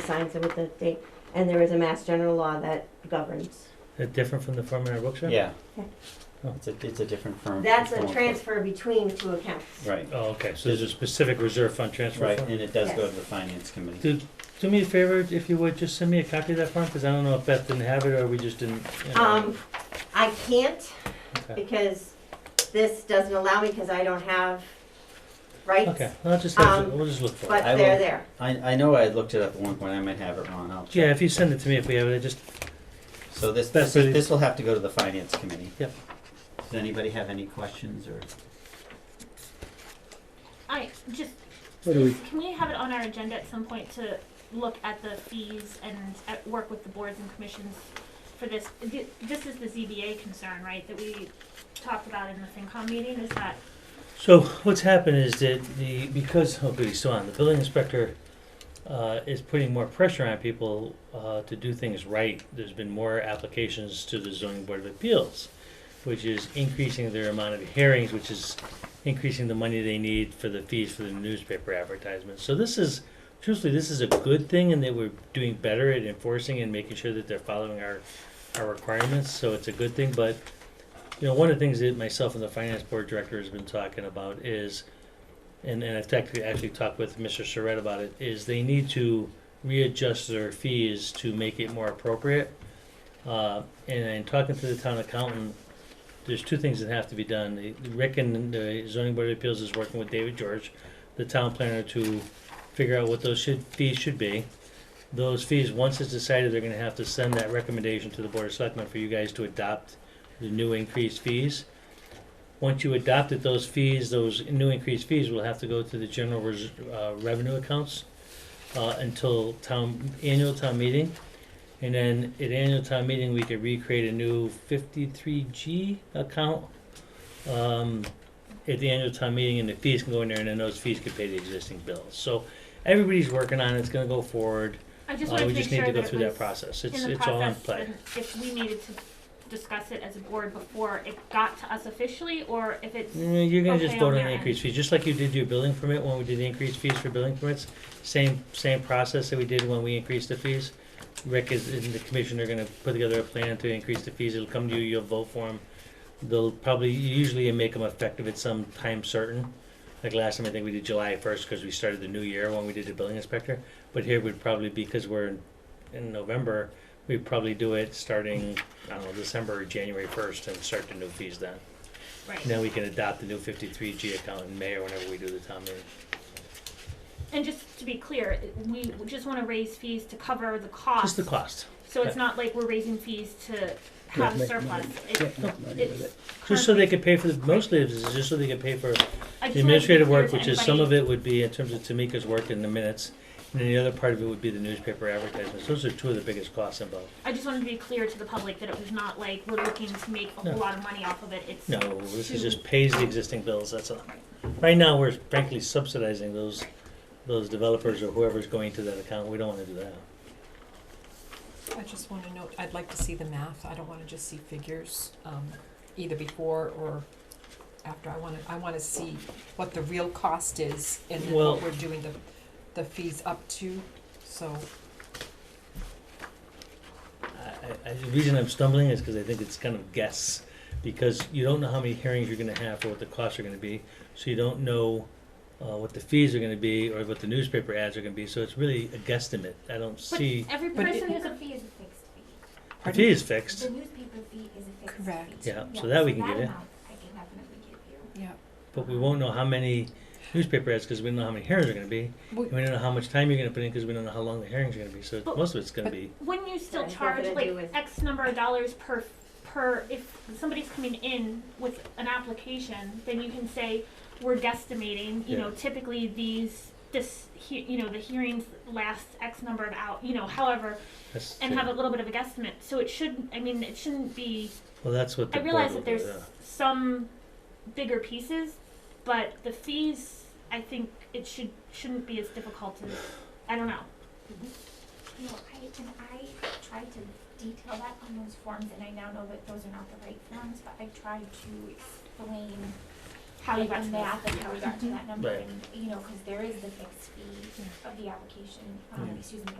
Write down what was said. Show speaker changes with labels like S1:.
S1: signs it with the thing, and there is a mass general law that governs.
S2: Is it different from the firm in our Brookshire?
S3: Yeah.
S1: Okay.
S2: Oh.
S3: It's a, it's a different firm.
S1: That's a
S3: form of-
S1: transfer between two accounts.
S3: Right,
S2: Oh, okay, so there's a specific reserve fund transfer
S3: right,
S2: form?
S3: and it does go
S1: Yes.
S3: to the finance committee.
S2: Do, do me a favor, if you would, just send me a copy of that form, because I don't know if Beth didn't have it, or we just didn't, you know.
S1: Um, I can't
S2: okay.
S1: because this doesn't allow me because I don't have rights,
S2: Okay, I'll just have, to-
S1: um,
S2: we'll just look for it.
S1: but
S3: I
S1: they're
S3: will-
S1: there.
S3: I, I know I looked it up at one point, I might have it wrong, I'll
S2: Yeah,
S3: check.
S2: if you send it to me, if we have it, I just,
S3: So this,
S2: That's
S3: this,
S2: it.
S3: this will have to go to the finance committee.
S2: Yep.
S3: Does anybody have any questions or?
S4: I just
S5: What do we,
S4: can we have it on our agenda at some point to look at the fees and at work with the boards and commissions for this? Th- This is the ZBA concern, right? That we talked about in the FinCom meeting. Is that
S2: so what's happened is that the, because, oh, good, he's still on, the building inspector, uh, is putting more pressure on people, uh, to do things right. There's been more applications to the zoning board of appeals, which is increasing their amount of hearings, which is increasing the money they need for the fees for the newspaper advertisements. So this is, truthfully, this is a good thing, and they were doing better at enforcing and making sure that they're following our, our requirements, so it's a good thing, but, you know, one of the things that myself and the finance board director has been talking about is, and, and I've actually, actually talked with Mr. Saret about it, is they need to readjust their fees to make it more appropriate. Uh, and in talking to the town accountant, there's two things that have to be done. The- Rick and the zoning board of appeals is working with David George, the town planner, to figure out what those should, fees should be. Those fees, once it's decided, they're gonna have to send that recommendation to the board of selectmen for you guys to adopt the new increased fees. Once you adopted those fees, those new increased fees will have to go to the general res- uh, revenue accounts, uh, until town, annual town meeting. And then at annual town meeting, we could recreate a new fifty-three G account. Um, at the annual town meeting and the fees can go in there and then those fees could pay the existing bills. So everybody's working on it, it's gonna go forward.
S4: I just
S2: Uh,
S4: wanted
S2: we
S4: to
S2: just
S4: make
S2: need
S4: sure
S2: to go
S4: that
S2: through
S4: it
S2: that
S4: was
S2: process.
S4: in
S2: It's,
S4: the
S2: it's all in
S4: process
S2: play.
S4: and if we needed to discuss it as a board before it got to us officially, or if it's
S2: Mm, You're gonna
S4: Okay,
S2: just vote on
S4: on
S2: the
S4: your
S2: increased fees, just like you did your building permit when we did the increased fees for building permits. Same, same process that we did when we increased the fees. Rick is, and the commission are gonna put together a plan to increase the fees. It'll come to you, you'll vote for them. They'll probably, usually you make them effective at some time certain. Like last time, I think we did July first, cause we started the new year when we did the building inspector. But here would probably, because we're in, in November, we'd probably do it starting, I don't know, December or January first and start the new fees then.
S4: right.
S2: Now we can adopt the new fifty-three G account in May or whenever we do the town meeting.
S4: And just to be clear, we just want to raise fees to cover the cost.
S2: Just the cost,
S4: So it's not like we're raising fees to have
S5: make
S4: surplus.
S5: money.
S4: It-
S5: yeah, no, not even
S4: It's
S5: that.
S2: just so they could pay for, the mostly of this is just so they could pay for the
S4: I just wanted to be
S2: administrative
S4: clear
S2: work,
S4: to
S2: which is, some
S4: anybody-
S2: of it would be in terms of Tamika's work in the minutes. And then the other part of it would be the newspaper advertisements. Those are two of the biggest costs involved.
S4: I just wanted to be clear to the public that it was not like we're looking to make a
S2: No.
S4: whole lot of money off of it. It's
S2: No, this is just pays the existing bills, that's all. Right now, we're frankly subsidizing those, those developers or whoever's going to that account. We don't wanna do that.
S6: I just wanna note, I'd like to see the math, I don't wanna just see figures, um, either before or after, I wanna, I wanna see what the real cost is and then
S2: Well-
S6: what we're doing the, the fees up to, so,
S2: I, I, the reason I'm stumbling is because I think it's kind of guess, because you don't know how many hearings you're gonna have or what the costs are gonna be, so you don't know uh, what the fees are gonna be or what the newspaper ads are gonna be, so it's really a guesstimate. I don't
S4: But
S2: see,
S4: every
S6: But
S4: person
S6: it-
S4: has
S7: The
S4: a
S7: fee is a fixed fee.
S2: the
S6: pardon?
S2: fee is fixed.
S7: The newspaper fee is a fixed fee.
S6: Correct.
S2: Yeah, so that we can get in.
S7: amount I can definitely give you.
S6: Yeah,
S2: But we won't know how many newspaper ads, because we don't know how many hearings are gonna be,
S6: We-
S2: and we don't know how much time you're gonna put in, because we don't know how long the hearings are gonna be, so
S4: But-
S2: most of it's gonna
S6: but-
S2: be,
S4: when you still
S1: Right, it's
S4: charge
S1: nothing to
S4: like
S1: do with-
S4: X number of dollars per per if somebody's coming in with an application, then you can say we're guesstimating. You know,
S2: Yeah.
S4: typically these this he, you know the hearings last X number of out you know however
S2: that's,
S4: and have a little bit of a guesstimate. So it should I mean it shouldn't be.
S2: well, that's what the
S4: I
S2: board
S4: realize
S2: will
S4: that
S2: do,
S4: there's
S2: yeah.
S4: some bigger pieces, but the fees, I think it should, shouldn't be as difficult as, I don't know.
S7: No, I, and I tried to detail that on those forms, and I now know that those are not the right forms, but I tried to explain
S4: How you
S7: like,
S4: got
S7: the
S4: to
S7: math
S4: this.
S7: and how we got to that number,
S2: Right.
S7: and, you know, because there is the fixed fee of the application, um,
S2: Yeah.
S7: excuse me,